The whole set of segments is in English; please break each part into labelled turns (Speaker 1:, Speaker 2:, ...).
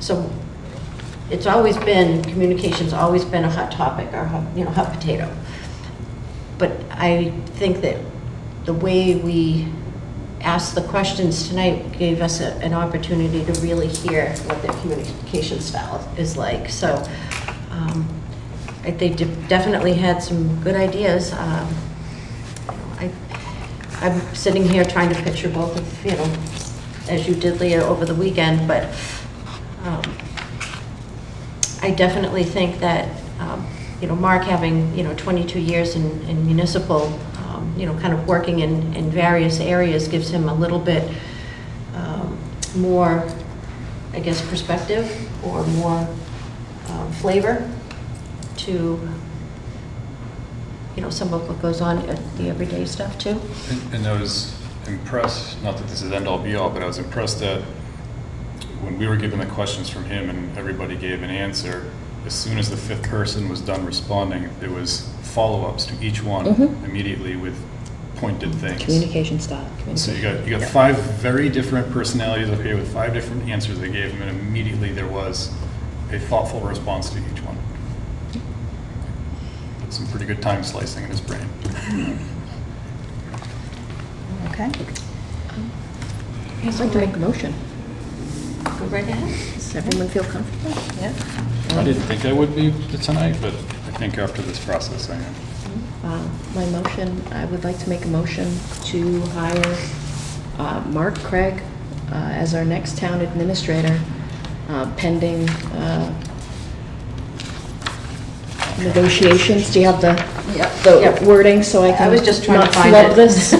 Speaker 1: so it's always been, communication's always been a hot topic, or, hot- you know, hot potato. But I think that the way we asked the questions tonight gave us a- an opportunity to really hear what their communication style is like. So um, I- they de- definitely had some good ideas. Um, I- I'm sitting here trying to picture both of, you know, as you did, Leah, over the weekend, but um, I definitely think that, um, you know, Mark having, you know, 22 years in in municipal, um, you know, kind of working in, in various areas gives him a little bit um, more, I guess, perspective or more um, flavor to, you know, some of what goes on at the everyday stuff too.
Speaker 2: And- And I was impressed, not that this is end-all be-all, but I was impressed that when we were given the questions from him and everybody gave an answer, as soon as the fifth person was done responding, there was follow-ups to each one
Speaker 3: Mhm.
Speaker 2: immediately with pointed things.
Speaker 3: Communication style.
Speaker 2: So you got, you got
Speaker 3: Yeah.
Speaker 2: five very different personalities up here with five different answers they gave him, and immediately there was a thoughtful response to each one. Some pretty good time slicing in his brain.
Speaker 4: Okay.
Speaker 3: I'd like to make a motion.
Speaker 1: Go right ahead.
Speaker 3: Does everyone feel comfortable? Yeah.
Speaker 2: I didn't think I would be tonight, but I think after this process, I am.
Speaker 3: Um, My motion, I would like to make a motion to hire uh, Mark Craig uh, as our next town administrator uh, pending uh, negotiations. Do you have the
Speaker 1: Yep.
Speaker 3: the wording so I
Speaker 1: I
Speaker 3: can
Speaker 1: was just trying to
Speaker 3: not
Speaker 1: find
Speaker 3: flub
Speaker 1: it.
Speaker 3: this?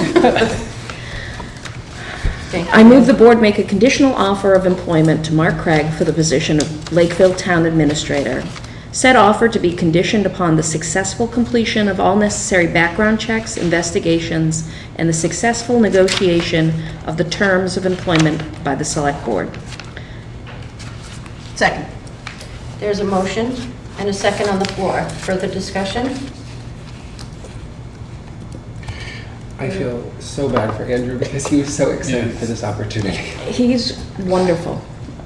Speaker 1: Thank you.
Speaker 3: I move the board make a conditional offer of employment to Mark Craig for the position of Lakeville Town Administrator. Said offer to be conditioned upon the successful completion of all necessary background checks, investigations, and the successful negotiation of the terms of employment by the Select Board.
Speaker 4: Second.
Speaker 1: There's a motion and a second on the floor. Further discussion?
Speaker 5: I feel so bad for Andrew because he was so excited for this opportunity.
Speaker 3: He's wonderful.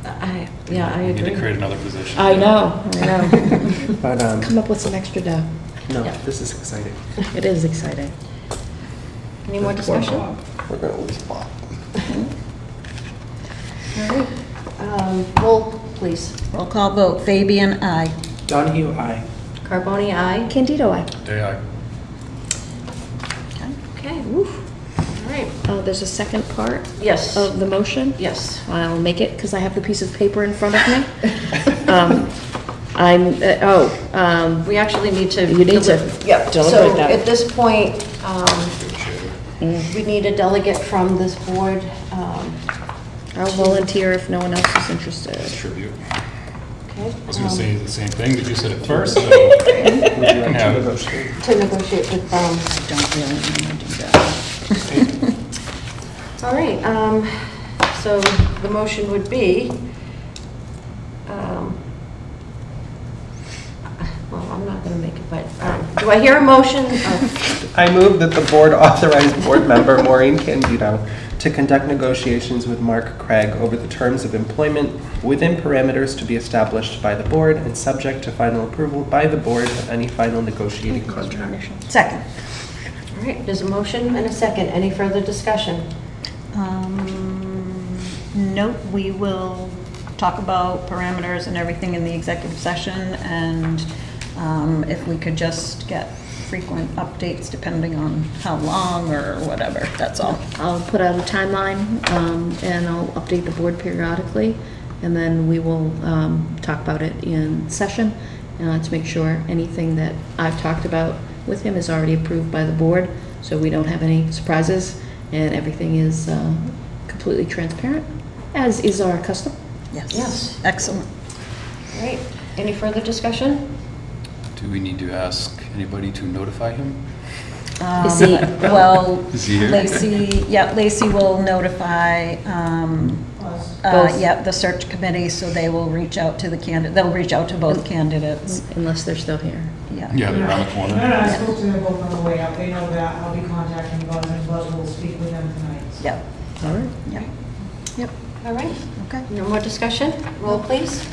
Speaker 1: I, yeah, I agree.
Speaker 2: We
Speaker 1: Oh,
Speaker 2: need to create another position.
Speaker 3: I know, I know.
Speaker 5: But, um,
Speaker 3: Come up with some extra dough.
Speaker 5: no,
Speaker 1: Yeah.
Speaker 5: this is exciting.
Speaker 3: It is exciting.
Speaker 1: Any more discussion?
Speaker 5: We're gonna lose Bob.
Speaker 1: Um, Roll, please.
Speaker 4: Roll call vote, Fabian, aye.
Speaker 5: Donahue, I.
Speaker 1: Carboni, aye.
Speaker 3: Candido, I.
Speaker 2: Day I.
Speaker 4: Okay.
Speaker 1: Okay, All right.
Speaker 3: Oh, there's a second part
Speaker 1: Yes,
Speaker 3: of the motion?
Speaker 1: yes.
Speaker 3: I'll make it because I have the piece of paper in front of me. Um, I'm, uh, oh, um,
Speaker 1: We actually need to.
Speaker 3: You need to
Speaker 1: deli- Yep.
Speaker 3: deliberate that. Mm.
Speaker 1: So at this point, um, we need a delegate from this board. um,
Speaker 3: I'll volunteer if no one else is interested.
Speaker 2: Distribute.
Speaker 1: Okay.
Speaker 2: I was gonna
Speaker 1: um,
Speaker 2: say the same thing, but you said it first, so you
Speaker 5: Would you
Speaker 2: can
Speaker 5: like to
Speaker 2: have it.
Speaker 5: negotiate?
Speaker 1: To negotiate with, um,
Speaker 4: Don't really want to do that.
Speaker 1: all right, um, so the motion would be, um, well, I'm not going to make it, but um, do I hear a motion? Oh,
Speaker 5: I move that the board authorize board member Maureen Candido to conduct negotiations with Mark Craig over the terms of employment within parameters to be established by the board and subject to final approval by the board of any final negotiating contract.
Speaker 4: Second.
Speaker 1: All right, there's a motion and a second. Any further discussion?
Speaker 4: Um, Nope, we will talk about parameters and everything in the executive session, and um, if we could just get frequent updates depending on how long or whatever, that's all.
Speaker 3: I'll put out a timeline, um, and I'll update the board periodically, and then we will, um, talk about it in session, uh, to make sure anything that I've talked about with him is already approved by the board, so we don't have any surprises, and everything is, uh, completely transparent, as is our custom.
Speaker 1: Yes.
Speaker 4: Excellent.
Speaker 1: All right, any further discussion?
Speaker 2: Do we need to ask anybody to notify him?
Speaker 3: Is he-
Speaker 4: Um, Well,
Speaker 2: Is he here?
Speaker 4: Lacey, yeah, Lacey will notify, um, uh,
Speaker 3: Both.
Speaker 4: yeah, the search committee, so they will reach out to the candidate, they'll reach out to both candidates,
Speaker 3: Unless they're still here.
Speaker 2: Yeah, they're around the corner.
Speaker 6: No, no, I spoke to them both on the way out, they know that, I'll be contacting Buzz, and Buzz will speak with them tonight.
Speaker 4: Yep,
Speaker 3: All right.
Speaker 4: yep.
Speaker 3: Yep.
Speaker 1: All right,
Speaker 4: Okay.
Speaker 1: no more discussion? Roll, please.